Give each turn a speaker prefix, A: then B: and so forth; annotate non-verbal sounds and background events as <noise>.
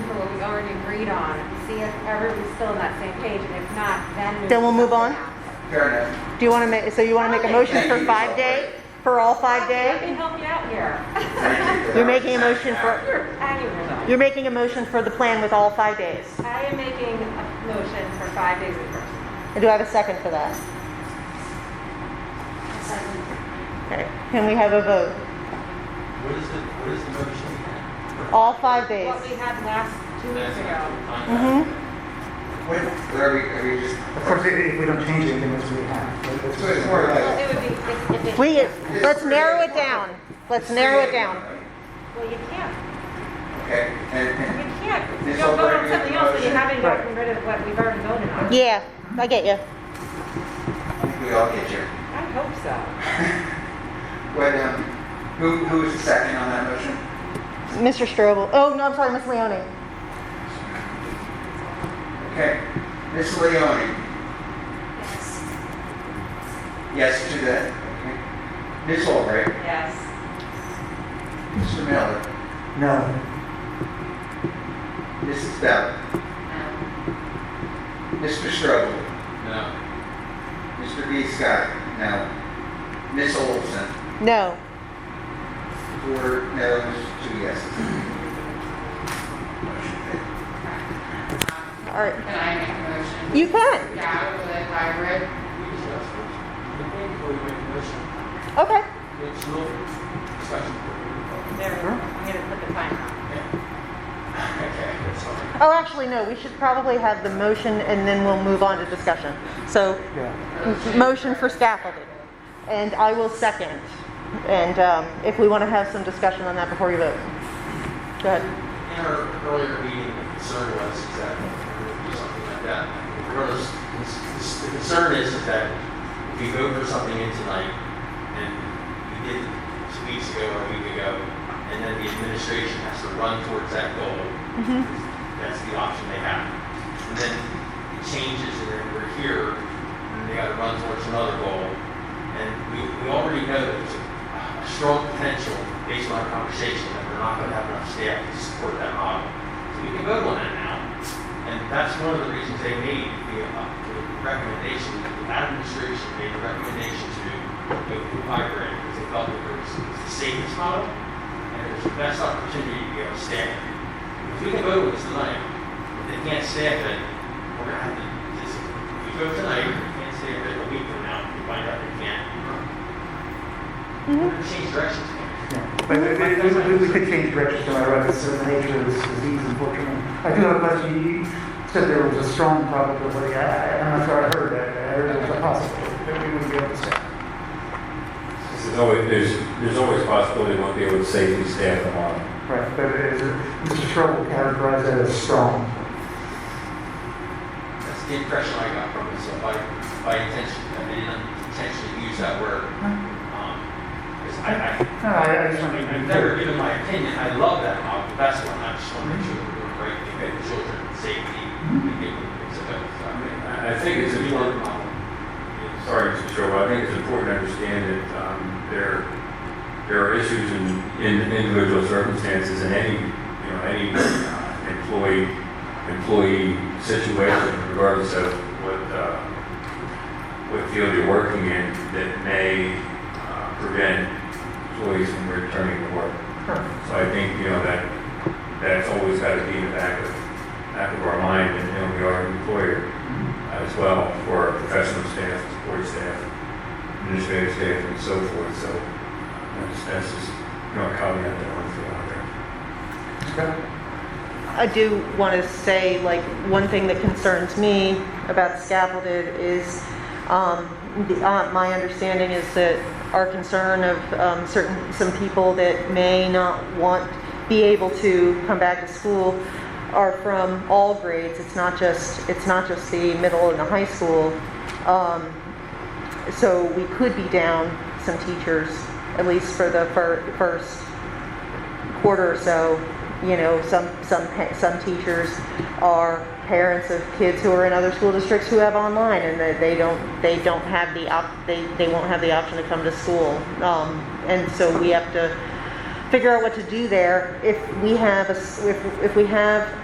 A: agreed on, see if everybody's still on that same page, and if not, then.
B: Then we'll move on?
C: Fair enough.
B: Do you want to make, so you want to make a motion for five day, for all five
A: Let me
B: day?
A: help you out here. <laughs>
C: Thank you for
B: You're
C: that.
B: making a motion for,
A: You're annual though.
B: you're making a motion for the plan with all five days.
A: I am making a motion for five days of person.
B: Do I have a second for that? Okay, can we have a vote?
D: What is the, what is the motion?
B: All five days.
A: What we had last two weeks
D: That's
A: ago.
D: not the
B: hmm
C: What, are we, are we just,
E: Of course, if if we don't change anything, which we have.
C: so it's more
A: Well,
C: like.
A: it would be, if, if it.
B: We, let's narrow it down. Let's narrow it down.
A: Well, you can't,
C: Okay, and,
A: you
C: and,
A: can't, you
C: This
A: don't vote on
C: already is
A: something else, but you
C: motion.
A: haven't gotten rid of what we've already voted on.
B: Yeah, I get you.
C: I think we all get you.
A: I hope so.
C: What, um, who, who is the second on that motion?
B: Mr. Strobel, oh, no, I'm sorry, Miss Leoni.
C: Okay, Ms. Leoni? Yes. Yes to that, okay. Ms. Albright?
A: Yes.
C: Mr. Miller?
E: No,
C: Mrs. Bell?
A: Um,
C: Mr. Strobel?
D: plan. No,
C: Mr. B. Scott? No. Ms. Olson?
B: No.
C: Four no's, two yeses. Motion failed.
B: All right,
F: Can I make a motion?
B: you can.
F: Yeah, with a hybrid.
D: we just asked first. I think before we make a motion,
B: Okay.
D: let's look at discussion.
A: There, I'm gonna put the time on.
D: Okay, sorry.
B: Oh, actually, no, we should probably have the motion and then we'll move on to discussion. So,
E: yeah.
B: m- motion for scaffolding. And I will second. And um, if we want to have some discussion on that before you vote. Go ahead.
D: In our earlier meeting, the concern was is that we would do something like that. Regardless, this- this- the concern is is that if we vote for something in tonight, and we did it two weeks ago or a week ago, and then the administration has to run towards that goal, that's the option they have. And then it changes, and then we're here, and they gotta run towards another goal. And we, we already know that there's a strong potential, based on our conversation, that we're not gonna have enough staff to support that model. So we can vote on that now. And that's one of the reasons they made the, uh, the recommendation, that the administration made a recommendation to go to hybrid, because they felt that it was the safest model, and it was the best opportunity to be able to staff it. If we can vote on this tonight, if they can't staff it, we're gonna have to just, if we vote tonight, if they can't staff it a week from now, we find out they can't. We're gonna change directions.
E: yeah. But we- we, we, we could change directions no matter what, it's the nature of this disease, unfortunately. I do have a question, you said there was a strong probability, I, I- I'm not sure I heard that, I heard it was a possibility, that we would be able to say.
G: There's always, there's, there's always possibility we won't be able to safely staff the model.
E: Right, but is, it- Mr. Strobel categorized that as strong.
D: That's the impression I got from it, so by, by intention, I didn't intentionally use that word. Um, 'cause I, I,
E: No, I, I just
D: I
E: want
D: mean,
E: to
D: I've
E: be
D: never
E: clear.
D: given my opinion, I love that model, the best one, I just want to make sure we're doing the right thing, for the children, safety, and give them things to vote. So, I mean,
G: I I think it's
D: a
G: important,
D: good model.
G: sorry, Mr. Strobel, I think it's important to understand that um, there, there are issues in, in individual circumstances in any, you know, any uh, employee, employee situation, regardless of what, uh, what field you're working in, that may uh, prevent employees from returning to work. So I think, you know, that, that's always got to be in the back of, back of our mind, and, you know, we are an employer as well for our professional staff, support staff, administrative staff, and so forth, so that's, that's just, you know, a caveat that I want to throw out there.
B: I do want to say, like, one thing that concerns me about scaffolded is, um, the- uh, my understanding is that our concern of um, certain, some people that may not want, be able to come back to school are from all grades. It's not just, it's not just the middle and the high school. Um, So we could be down some teachers, at least for the fir- first quarter or so, you know, some, some, pa- some teachers are parents of kids who are in other school districts who have online and they, they don't, they don't have the op, they, they won't have the option to come to school. Um, and so we have to figure out what to do there. If we have a, s- if, if we have